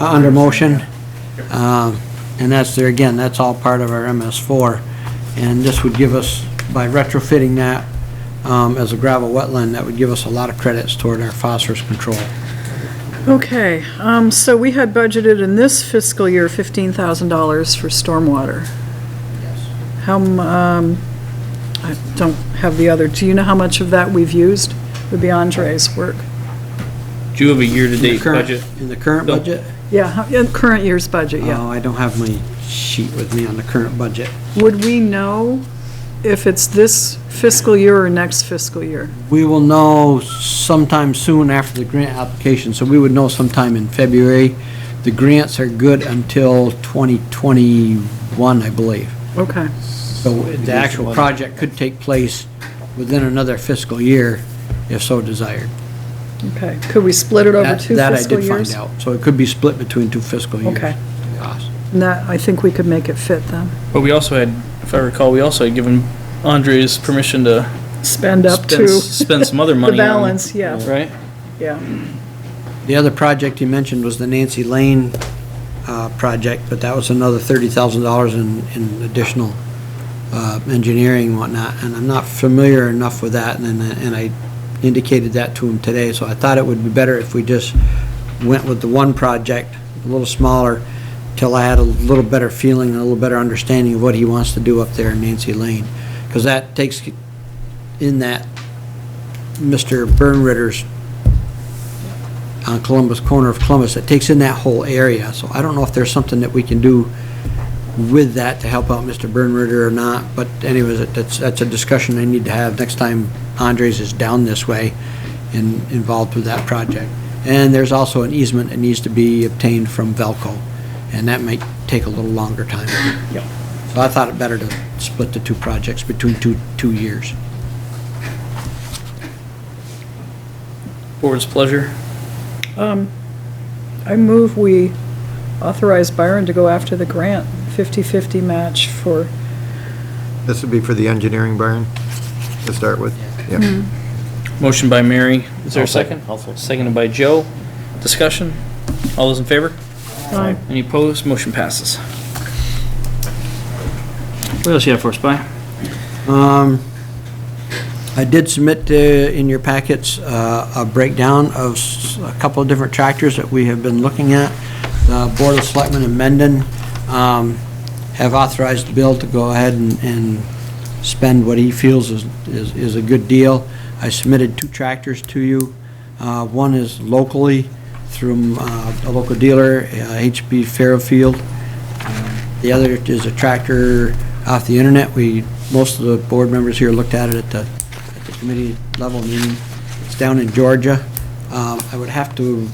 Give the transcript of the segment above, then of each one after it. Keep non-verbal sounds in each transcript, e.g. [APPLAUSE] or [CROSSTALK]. under motion. Um, And that's there, again, that's all part of our MS4. And this would give us, by retrofitting that um, as a gravel wetland, that would give us a lot of credits toward our phosphorus control. Okay, um, so we had budgeted in this fiscal year $15,000 for stormwater. How, m- um, I don't have the other, do you know how much of that we've used? Would be Andre's work. Do you have a year-to-date Current- budget? In the current No. budget? Yeah, how- in current year's budget, yeah. Oh, I don't have my sheet with me on the current budget. Would we know if it's this fiscal year or next fiscal year? We will know sometime soon after the grant application, so we would know sometime in February. The grants are good until 2021, I believe. Okay, So the actual project could take place within another fiscal year, if so desired. okay. Could we split it over That- two That I fiscal did find years? out. So it could be split between two fiscal years. Okay. Yes. And That, I think we could make it fit then. But we also had, if I recall, we also had given Andres permission to Spend up to, spend, spend some [LAUGHS] other money. on- balance, yeah. Right? yeah. The other project you mentioned was the Nancy Lane uh, project, but that was another $30,000 in in additional uh, engineering and whatnot, and I'm not familiar enough with that, and then- and I indicated that to him today, so I thought it would be better if we just went with the one project, a little smaller, till I had a little better feeling, and a little better understanding of what he wants to do up there in Nancy Lane, because that takes in that Mr. Bernritter's on Columbus, corner of Columbus, that takes in that whole area. So I don't know if there's something that we can do with that to help out Mr. Bernrider or not, but anyways, it- that's, that's a discussion I need to have next time Andres is down this way and involved with that project. And there's also an easement that needs to be obtained from Velco, and that might take a little longer time. So I thought it better to split the two projects between two, two years. Board's pleasure. I move we authorize Byron to go after the grant, 50/50 match for, This would be for the engineering barn to start with? Yeah. Motion by Mary. Is there I'll a second? second. I'll second. Seconded by Joe. Discussion? All those in favor? Aye. Any opposed? Motion passes. What else you have for us, By? Um, I did submit uh, in your packets uh, a breakdown of s- a couple of different tractors that we have been looking at. The Board of Selectmen in Mendon um, have authorized Bill to go ahead and- and spend what he feels is- is is a good deal. I submitted two tractors to you. Uh, One is locally through uh, a local dealer, uh, HB Fairfield. The other is a tractor off the internet. We, most of the board members here looked at it at the, at the committee level meeting. It's down in Georgia. Um, I would have to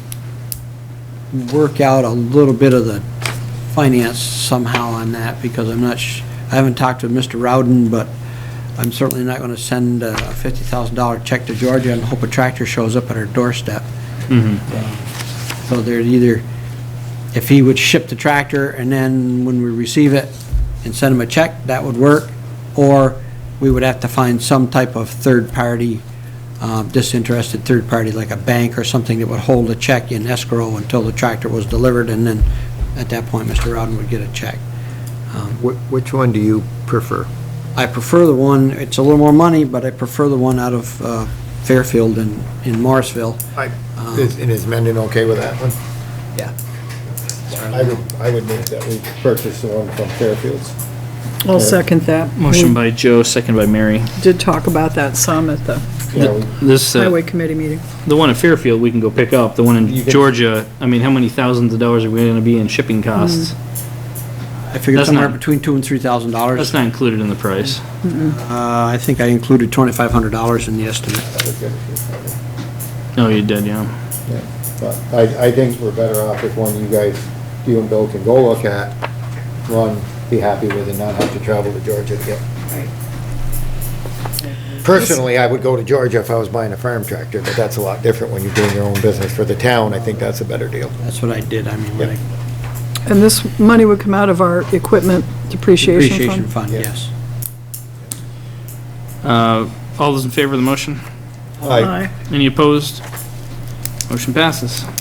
work out a little bit of the finance somehow on that because I'm not, sh- I haven't talked to Mr. Rowden, but I'm certainly not going to send a $50,000 check to Georgia and hope a tractor shows up at our doorstep. So there's either, if he would ship the tractor, and then when we receive it and send him a check, that would work, or we would have to find some type of third-party, um, disinterested third-party, like a bank or something that would hold a check in escrow until the tractor was delivered, and then at that point, Mr. Rowden would get a check. Wh- Which one do you prefer? I prefer the one, it's a little more money, but I prefer the one out of uh, Fairfield in, in Morrisville. I. And is Mendon okay with that one? Yeah. I would, I would make that we purchase the one from Fairfields. I'll second that. Motion by Joe, seconded by Mary. We did talk about that some at the Yeah, we- This, uh, highway committee meeting. the one in Fairfield, we can go pick up. The one in You can- Georgia, I mean, how many thousands of dollars are we gonna be in Mm. shipping costs? I figured That's somewhere not- between two and three thousand dollars. That's not included in the price. Uh, I think I included $2,500 in the estimate. No, you did, yeah. yeah. But I, I think we're better off if one you guys, you and Bill can go look at, run, be happy with and not have to travel to Georgia to get. Personally, I would go to Georgia if I was buying a farm tractor, but that's a lot different when you're doing your own business for the town. I think that's a better deal. That's what I did, I mean, when I- And this money would come out of our equipment depreciation appreciation fund. fund, Yeah. yes. Uh, all those in favor of the motion? Aye. Any opposed? Motion passes.